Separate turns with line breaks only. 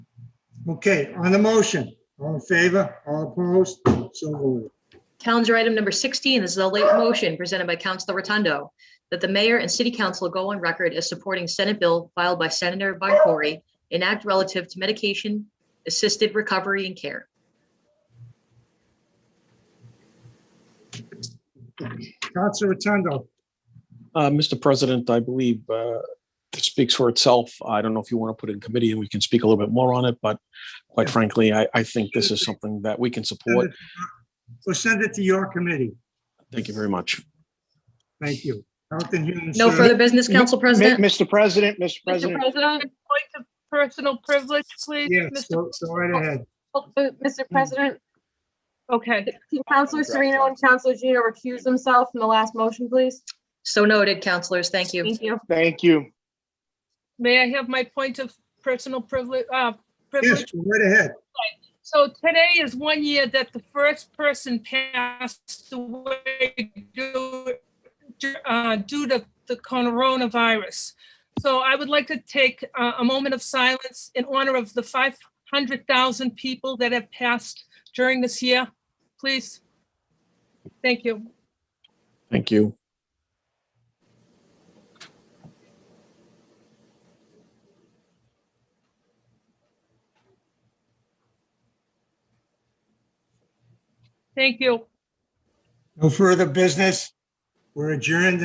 Okay, on the motion, all in favor, all opposed, so voted.
Calendar item number 16 this is a late motion presented by Councilor Rotundo that the mayor and city council go on record as supporting Senate bill filed by Senator Boncory an act relative to medication assisted recovery and care.
Council Rotundo,
Uh, Mr. President, I believe uh, it speaks for itself. I don't know if you want to put it in committee and we can speak a little bit more on it, but quite
Yeah.
frankly, I, I think this is something that we can support.
we'll send it to your committee.
Thank you very much.
Thank you. Health and Human
No
Services.
further business, Council
Mi-
President?
Mr. President, Mr.
Mr.
President,
President, point of personal privilege, please.
Yes,
Mr.
go go right ahead.
Oh, uh, Mr. President,
Okay.
Counselor Serino and Counselor Gino recuse themselves from the last motion, please.
So noted, councilors. Thank you.
Thank you.
thank you.
May I have my point of personal privilege, uh,
Yes,
privilege?
go right ahead.
So today is one year that the first person passed away due uh, due to the coronavirus. So I would like to take uh, a moment of silence in honor of the 500,000 people that have passed during this year, please. Thank you.
Thank you.
Thank you.
No further business. We're adjourned.